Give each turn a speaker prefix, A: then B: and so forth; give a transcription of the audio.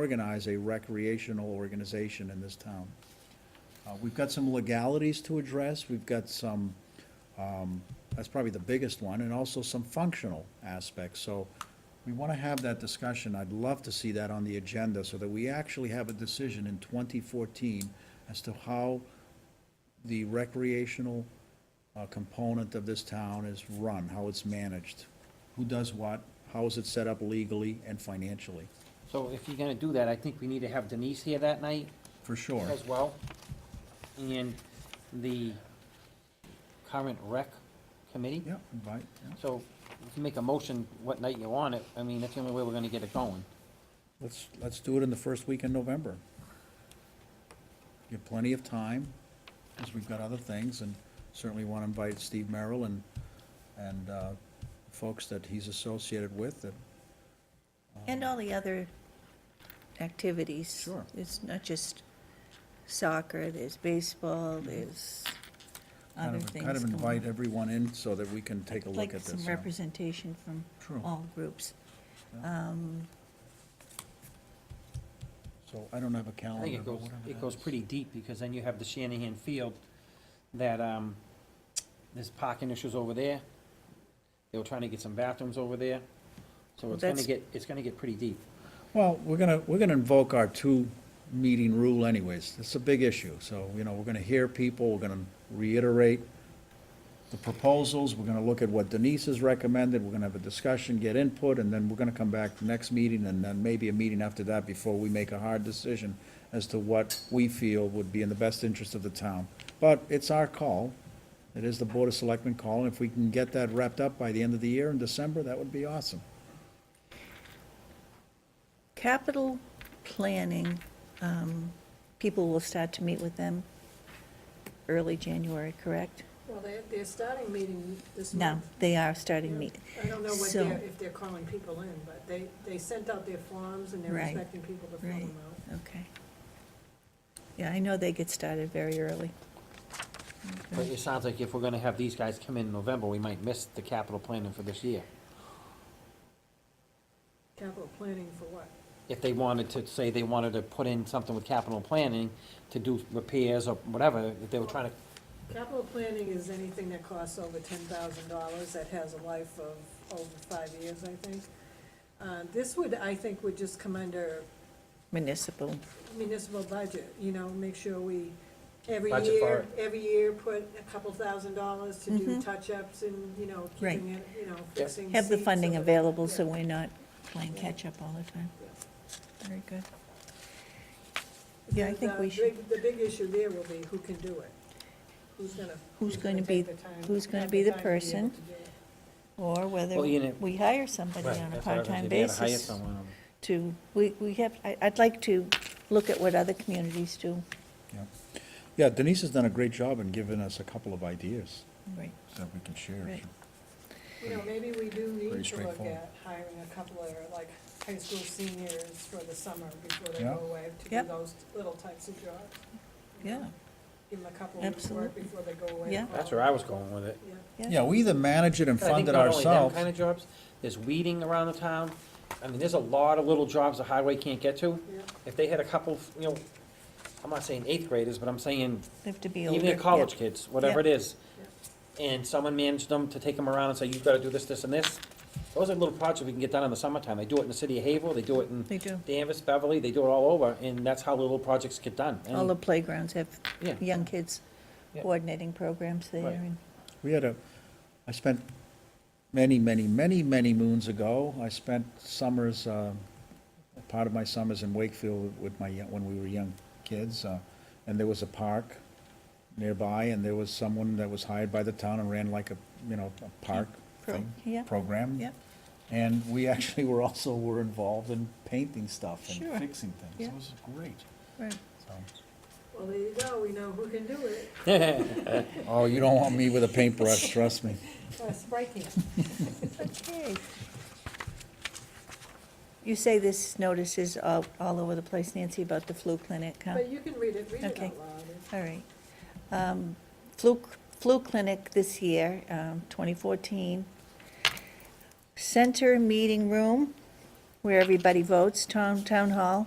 A: organize a recreational organization in this town. Uh, We've got some legalities to address, we've got some, um, that's probably the biggest one, and also some functional aspects. So we want to have that discussion. I'd love to see that on the agenda so that we actually have a decision in 2014 as to how the recreational uh, component of this town is run, how it's managed, who does what, how is it set up legally and financially,
B: So if you're gonna do that, I think we need to have Denise here that night
A: for sure.
B: as well. And the current rec committee.
A: Yeah, invite, yeah.
B: So if you make a motion what night you want it, I mean, that's the only way we're gonna get it going.
A: Let's, let's do it in the first week in November. Give plenty of time, because we've got other things, and certainly want to invite Steve Merrill and, and uh, folks that he's associated with, that,
C: And all the other activities.
A: Sure.
C: It's not just soccer, there's baseball,
A: Mm-hmm.
C: there's
A: kind
C: other
A: of,
C: things.
A: kind of
C: going
A: invite
C: on.
A: everyone in so that we can take a look at
C: Like some oh.
A: this. yeah.
C: representation from
A: True.
C: all groups. Um,
A: So I don't have a
B: I
A: calendar,
B: think it
A: Oh, but
B: goes,
A: whatever that
B: it goes
A: is.
B: pretty deep, because then you have the Shanahan Field, that, um, there's parking issues over there. They were trying to get some bathrooms over there, so it's gonna
C: That's-
B: get, it's gonna get pretty deep.
A: Well, we're gonna, we're gonna invoke our two-meeting rule anyways. It's a big issue, so, you know, we're gonna hear people, we're gonna reiterate the proposals, we're gonna look at what Denise has recommended, we're gonna have a discussion, get input, and then we're gonna come back to next meeting, and then maybe a meeting after that before we make a hard decision as to what we feel would be in the best interest of the town. But it's our call. It is the Board of Selectmen call, and if we can get that wrapped up by the end of the year in December, that would be awesome.
C: Capital planning, um, people will start to meet with them early January, correct?
D: Well, they're, they're starting meeting this
C: No,
D: month.
C: they are starting meet.
D: I don't know what
C: So-
D: they're, if they're calling people in, but they, they sent out their forms and they're
C: Right,
D: expecting people to fill
C: right.
D: them out.
C: Okay. Yeah, I know they get started very early.
B: But it sounds like if we're gonna have these guys come in November, we might miss the capital planning for this year.
D: Capital planning for what?
B: If they wanted to, say they wanted to put in something with capital planning to do repairs or whatever, if they were trying to,
D: Capital planning is anything that costs over ten thousand dollars that has a life of over five years, I think. Uh, this would, I think, would just come under
C: Municipal,
D: municipal budget, you know, make sure we, every
B: Budget for
D: year,
B: it.
D: every year, put a couple thousand dollars to do touch-ups and, you know,
C: Mm-hmm. Right.
D: keeping it, you know, fixing.
C: have the
D: seats
C: funding
D: so that-
C: available so
D: yeah.
C: we're not playing catch-up all the time. Very good. Yeah, I
D: And
C: think
D: the
C: we should,
D: big- The big issue there will be who can do it. Who's gonna?
C: Who's gonna be-
D: take the time-
C: who's gonna
D: have
C: be the
D: time to able
C: person?
D: to do it.
C: or whether
B: Well, you know-
C: we hire somebody
B: Right,
C: on a
B: that's what I was gonna
C: part-time
B: say, they gotta hire
C: basis
B: someone.
C: to, we, we have, I, I'd like to look at what other communities do.
A: Yeah, Yeah, Denise has done a great job in giving us a couple of ideas
C: Right.
A: that we can share.
C: Right.
D: You know, maybe we do
A: Pretty
D: need to look
A: straightforward.
D: at hiring a couple of, like, high school seniors for the summer before they
A: Yeah.
D: go away to do
C: Yep.
D: those little types of jobs. you know?
C: Yeah,
D: Give them a couple of weeks' work
C: Absolutely.
D: before they go away.
C: Yeah.
D: and
B: That's
D: follow.
B: where I was going with it.
D: Yeah.
A: Yeah, we either manage it and
B: I think
A: fund it
B: not only them
A: ourselves.
B: kind of jobs, there's weeding around the town. I mean, there's a lot of little jobs the highway can't get to.
D: Yeah.
B: If they had a couple, you know, I'm not saying eighth graders, but I'm saying
C: They have to be older.
B: even your college
C: yeah.
B: kids, whatever it is. And someone managed them to take them around and say, you've got to do this, this, and this. Those are little projects we can get done in the summertime. They do it in the city of Haverhill, they do it
C: They
B: in
C: do.
B: Danvers, Beverly, they do it all over, and that's how little projects get done. And-
C: All the playgrounds have
B: Yeah.
C: young kids
B: Yeah.
C: coordinating programs there
B: Right.
C: and,
A: We had a, I spent many, many, many, many moons ago, I spent summers, uh, part of my summers in Wakefield with my, young- when we were young kids, uh, and there was a park nearby, and there was someone that was hired by the town and ran like a, you know, a park
C: Pro-
A: thing,
C: yeah.
A: program.
C: yeah,
A: And we actually were also, were involved in painting stuff and
C: Sure.
A: fixing things.
C: Yeah.
A: It was great.
C: right.
A: so.
D: Well, there you go, we know who can do it.
A: Oh, you don't want me with a paintbrush, trust me.
D: Uh, Spray can.
C: Okay. You say this notice is all, all over the place, Nancy, about the flu clinic, huh?
D: But you can read it, read it
C: Okay.
D: out loud.
C: All right. Um, Flu, flu clinic this year, um, 2014. Center meeting room where everybody votes, town, town hall.